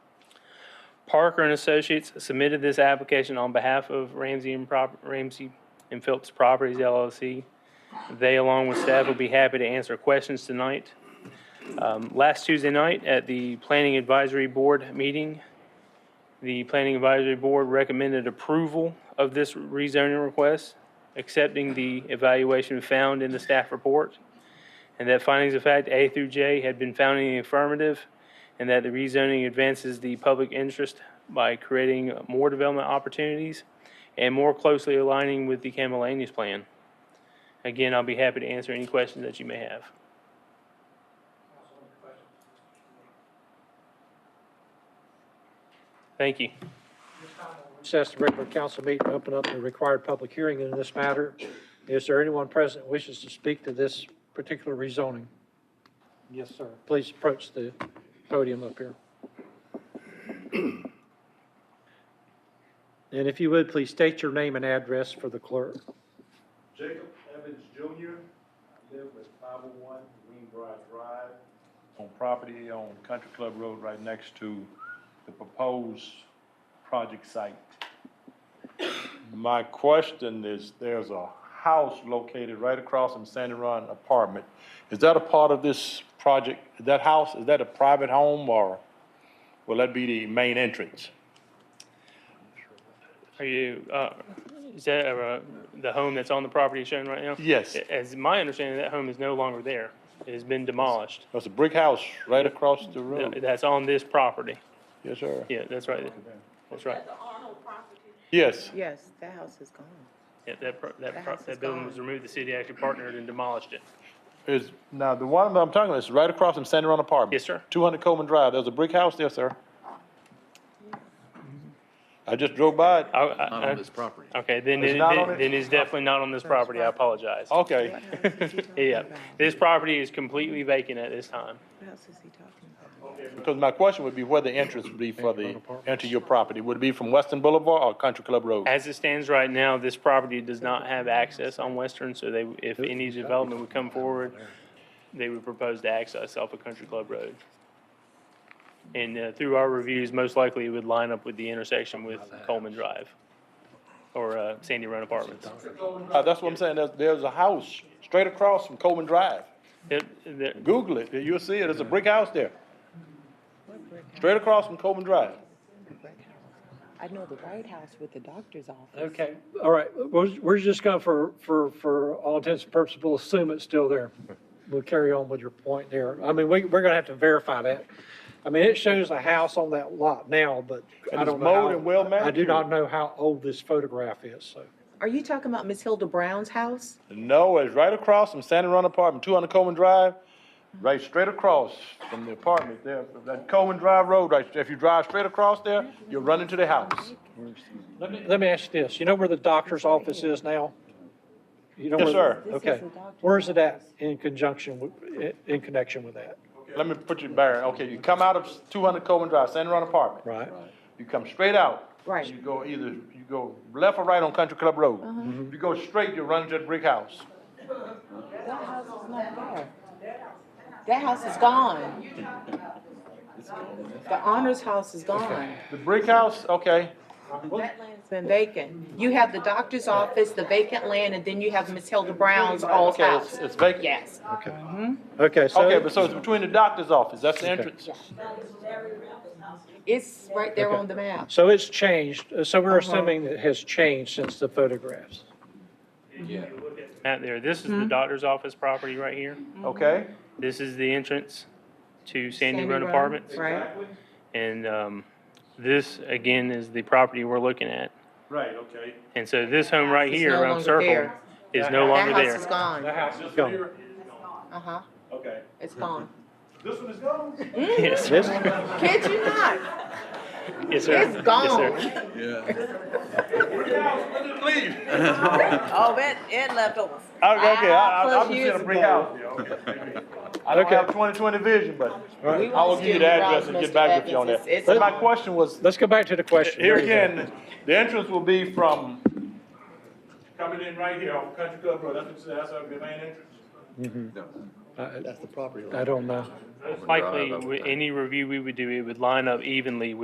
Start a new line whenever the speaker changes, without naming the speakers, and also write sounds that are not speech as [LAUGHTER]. Parker and Associates submitted this application on behalf of Ramsey and Prop, Ramsey and Phillips Properties LLC. They, along with staff, will be happy to answer questions tonight. Um, Last Tuesday night, at the Planning Advisory Board meeting, the Planning Advisory Board recommended approval of this rezoning request, accepting the evaluation found in the staff report, and that findings of fact A through J had been found in the affirmative, and that the rezoning advances the public interest by creating more development opportunities and more closely aligning with the Campbell Land Use Plan. Again, I'll be happy to answer any questions that you may have. Thank you.
Recess the regular council meeting, open up the required public hearing in this matter. Is there anyone present who wishes to speak to this particular rezoning? Yes, sir. Please approach the podium up here. And if you would, please state your name and address for the clerk.
Jacob Evans Jr., I live oh at 501 Greenbrier Drive, on property on Country Club Road, right next to the proposed project site. My question is, there's a house located right across from Sandy Run Apartment. Is that a part of this project? That house, is that a private home, or will that be the main entrance?
Are you, uh, is that, uh, the home that's on the property shown right now?
Yes.
As my understanding, that home is no longer there. It has been demolished.
There's a brick house right across the road.
That's on this property.
Yes, sir.
Yeah, that's right. That's right.
Yes.
Yes, that house is gone.
Yeah, that, pro- that, pro-
The house is
that building
gone.
was removed. The city actually partnered and demolished it.
Is, now, the one that I'm talking about is right across from Sandy Run Apartment.
Yes, sir.
Two hundred Coleman Drive, there's a brick house there, sir. I just drove by it,
I- I-
Not on this property.
Okay, then,
It's
it-
not on it?
then then it's definitely not on this property. I apologize.
okay. [LAUGHS]
Yeah, this property is completely vacant at this time.
What else is he talking about?
Because my question would be where the entrance would be for the, enter your property, would it be from Western Boulevard or Country Club Road?
As it stands right now, this property does not have access on Western, so they, if any development would come forward, they would propose to access off of Country Club Road. And uh, through our reviews, most likely it would line up with the intersection with Coleman Drive or uh, Sandy Run Apartments.
Uh, that's what I'm saying, there's, there's a house straight across from Coleman Drive,
It- there-
Google it, you'll see it, there's a brick house there, straight across from Coleman Drive.
I know the White House with the doctor's office.
Okay, all right, we're, we're just gonna, for, for, for all intents and purposes, we'll assume it's still there. We'll carry on with your point there. I mean, we, we're gonna have to verify that. I mean, it shows a house on that lot now, but
And
I
it's
don't know.
mowed
how-
and well
I do
manicured.
not know how old this photograph is, so.
Are you talking about Miss Hilda Brown's house?
No, it's right across from Sandy Run Apartment, two hundred Coleman Drive, right straight across from the apartment there, from that Coleman Drive Road, right, if you drive straight across there, you'll run into the house.
Let me, let me ask you this, you know where the doctor's office is now? You know
Yes,
where-
sir.
This is
Okay,
the doctor's
where is it at in conjunction, with- in connection with that,
Let me put you bearing, okay, you come out of two hundred Coleman Drive, Sandy Run Apartment.
right?
You come straight out.
Right. Uh-huh.
You go either, you go left or right on Country Club Road. You go straight, you run into the brick house.
That house is not there. That house is gone. The honors house is gone.
The brick house, okay,
That land's been vacant. You have the doctor's office, the vacant land, and then you have Miss Hilda Brown's old
okay, it's,
house.
it's vacant.
Yes.
Okay.
Mm-hmm.
Okay, so.
Okay, but so it's between the doctor's office, that's the entrance.
It's right there on the map.
So it's changed, Uh, so we're
Uh-huh.
assuming it has changed since the photographs.
Out there, this is
Mm-hmm.
the doctor's office property right here.
Okay,
This is the entrance to Sandy Run
Road,
Apartments.
Right.
And um, this, again, is the property we're looking at.
right, okay.
And so this home right
It's
here
no
around
longer
Circle
there.
is no longer
That house
[LAUGHS]
is
there.
gone.
house is gone.
Uh-huh.
Okay.
It's gone.
This one is [LAUGHS] gone?
Yes,
This,
Kid you not.
yes, sir.
It's gone.
Yes, sir.
Leave.
Oh, it, it left over.
Okay, okay, I, I,
Ah, Plus
I'm
years
just in a brick
ago.
house. [LAUGHS] I don't have twenty twenty vision, but
We
I will
won't
give you
steal
the
your
address
house,
and
Mr.
get back with you on
Evans.
that.
It's-
But
it's
my
gone.
question was,
let's go back to the question.
here again, the entrance will be from. Coming in right here on Country Club Road, that's what, that's the main entrance.
I- I don't know.
Likely, wi- any review we would do, it would line up evenly with